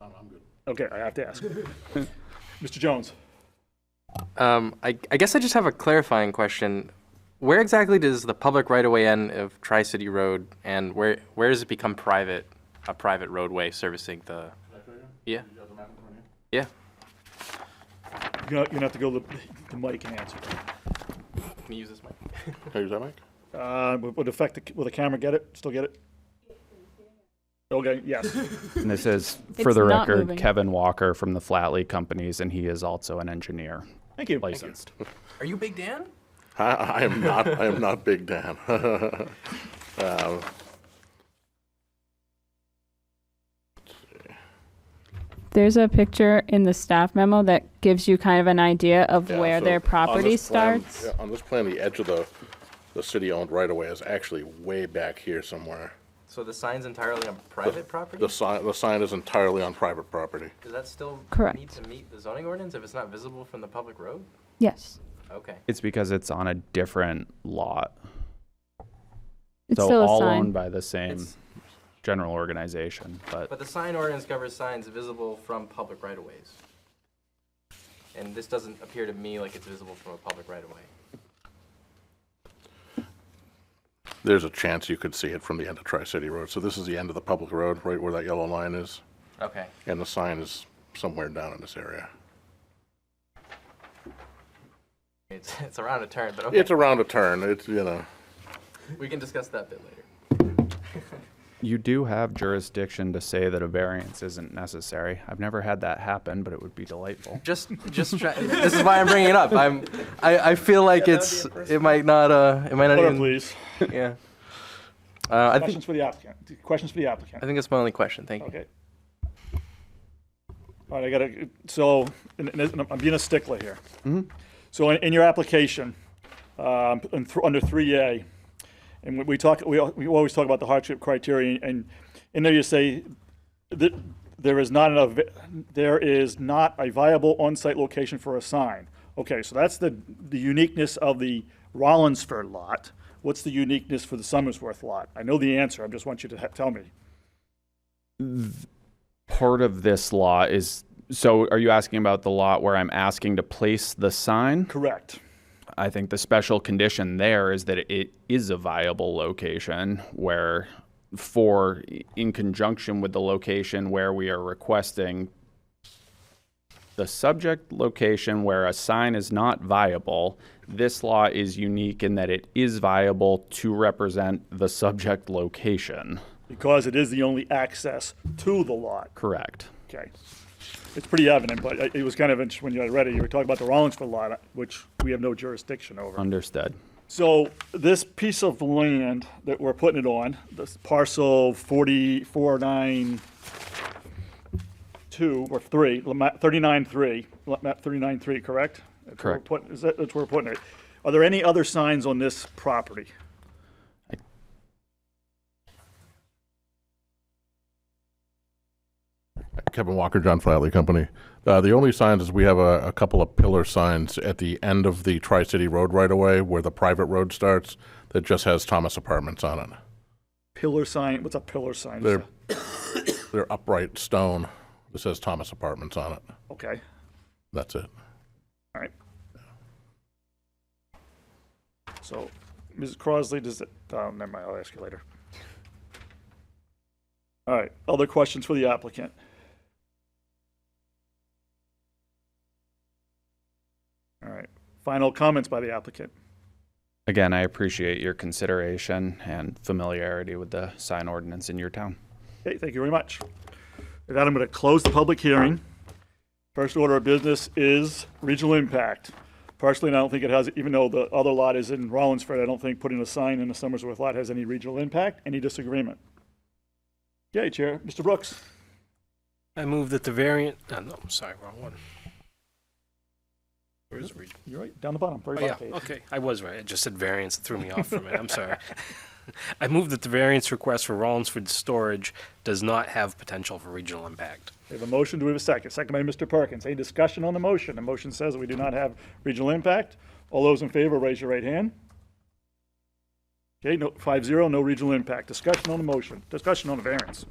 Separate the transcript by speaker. Speaker 1: I'm good.
Speaker 2: Okay, I have to ask. Mr. Jones?
Speaker 3: Um, I, I guess I just have a clarifying question. Where exactly does the public right-of-way end of Tri-City Road, and where, where does it become private, a private roadway servicing the? Yeah,
Speaker 1: You got the map in front of you?
Speaker 3: yeah.
Speaker 2: You're not- you're gonna have to go to the- the mic and answer.
Speaker 3: Can you use this mic?
Speaker 1: Can I use that mic?
Speaker 2: Uh, would would affect, the- will the camera get it? Still get it? Okay, yes.
Speaker 4: And this is,
Speaker 5: It's
Speaker 4: for the
Speaker 5: not
Speaker 4: record,
Speaker 5: moving.
Speaker 4: Kevin Walker from the Flatley Companies, and he is also an engineer
Speaker 2: Thank you. Thank you.
Speaker 4: licensed.
Speaker 3: Are you Big Dan?
Speaker 1: I, I am not, I am not Big Dan. Um,
Speaker 5: There's a picture in the staff memo that gives you kind of an idea of
Speaker 1: yeah,
Speaker 5: where
Speaker 1: so
Speaker 5: their
Speaker 1: on
Speaker 5: property
Speaker 1: this plan-
Speaker 5: starts.
Speaker 1: yeah, On this plan, the edge of the, the city-owned right-of-way is actually way back here somewhere.
Speaker 3: So the sign's entirely on private property?
Speaker 1: The sign, the sign is entirely on private property.
Speaker 3: Does that still need
Speaker 5: Correct.
Speaker 3: to meet the zoning ordinance if it's not visible from the public road?
Speaker 5: Yes.
Speaker 3: Okay.
Speaker 4: It's because it's on a different lot.
Speaker 5: It's
Speaker 4: so
Speaker 5: still a
Speaker 4: all
Speaker 5: sign.
Speaker 4: owned by the same
Speaker 3: It's-
Speaker 4: general organization, but
Speaker 3: But the sign ordinance covers signs visible from public right-of-ways. And this doesn't appear to me like it's visible from a public right-of-way.
Speaker 1: There's a chance you could see it from the end of Tri-City Road. So this is the end of the public road, right where that yellow line is,
Speaker 3: Okay.
Speaker 1: and the sign is somewhere down in this area.
Speaker 3: It's, it's around a turn, but okay.
Speaker 1: It's around a turn, it's, you know,
Speaker 3: We can discuss that bit later.
Speaker 4: you do have jurisdiction to say that a variance isn't necessary. I've never had that happen, but it would be delightful.
Speaker 3: Just, just try, this is why I'm bringing it up. I'm, I, I feel like it's, it might not, uh, it might not
Speaker 2: Hold on,
Speaker 3: even,
Speaker 2: please.
Speaker 3: yeah. Uh, I think,
Speaker 2: Questions for the applicant. Questions for the applicant.
Speaker 3: I think that's my only question. Thank you.
Speaker 2: Okay. All right, I gotta, so, and, and I'm- I'm being a stickler here. So in, in your application, um, in th- under three A, and we- we talk, we, al- we always talk about the hardship criteria, and in there you say that there is not enough, vi- there is not a viable on-site location for a sign. Okay, so that's the, the uniqueness of the Rollinsford lot. What's the uniqueness for the Summersworth lot? I know the answer, I just want you to ha- tell me.
Speaker 4: Part of this law is so are you asking about the lot where I'm asking to place the sign?
Speaker 2: Correct.
Speaker 4: I think the special condition there is that it is a viable location where for in conjunction with the location where we are requesting the subject location where a sign is not viable, this law is unique in that it is viable to represent the subject location.
Speaker 2: because it is the only access to the lot.
Speaker 4: Correct.
Speaker 2: Okay. It's pretty evident, but it- it was kind of interesting when you read it. You were talking about the Rollinsford lot, which we have no jurisdiction over.
Speaker 4: Understood.
Speaker 2: So this piece of land that we're putting it on, this parcel 4492 or 3, lot map 393, lot map 393, correct? That's where we're
Speaker 4: Correct.
Speaker 2: putting- Is that, that's where we're putting it. Are there any other signs on this property?
Speaker 1: Kevin Walker, John Flatley Company. Uh, the only signs is we have a, a couple of pillar signs at the end of the Tri City Road right away where the private road starts that just has Thomas Apartments on it.
Speaker 2: Pillar sign, what's a pillar sign?
Speaker 1: They're, they're upright stone that says Thomas Apartments on it.
Speaker 2: Okay,
Speaker 1: That's it.
Speaker 2: all right. So, Mrs. Crosley, does it, oh, never mind, I'll ask you later. All right, other questions for the applicant? All right, final comments by the applicant.
Speaker 4: Again, I appreciate your consideration and familiarity with the sign ordinance in your town.
Speaker 2: Okay, thank you very much. With that, I'm going to close the public hearing. First order of business is regional impact. Personally, and I don't think it has, even though the other lot is in Rollinsford, I don't think putting a sign in the Summersworth lot has any regional impact. Any disagreement? Okay, Chair, Mr. Brooks.
Speaker 6: I move that the variant, oh, no, I'm sorry, wrong one. Where is it?
Speaker 2: You're right, down the bottom, very
Speaker 6: Oh, yeah,
Speaker 2: bottom page.
Speaker 6: okay, I was right, I just said variance, it threw me off for a minute, I'm sorry. I move that the variance request for Rollinsford storage does not have potential for regional impact.
Speaker 2: We have a motion, do we have a second? Second by Mr. Perkins. Any discussion on the motion? The motion says that we do not have regional impact. All those in favor, raise your right hand. Okay, no, five zero, no regional impact. Discussion on the motion, discussion on the variance.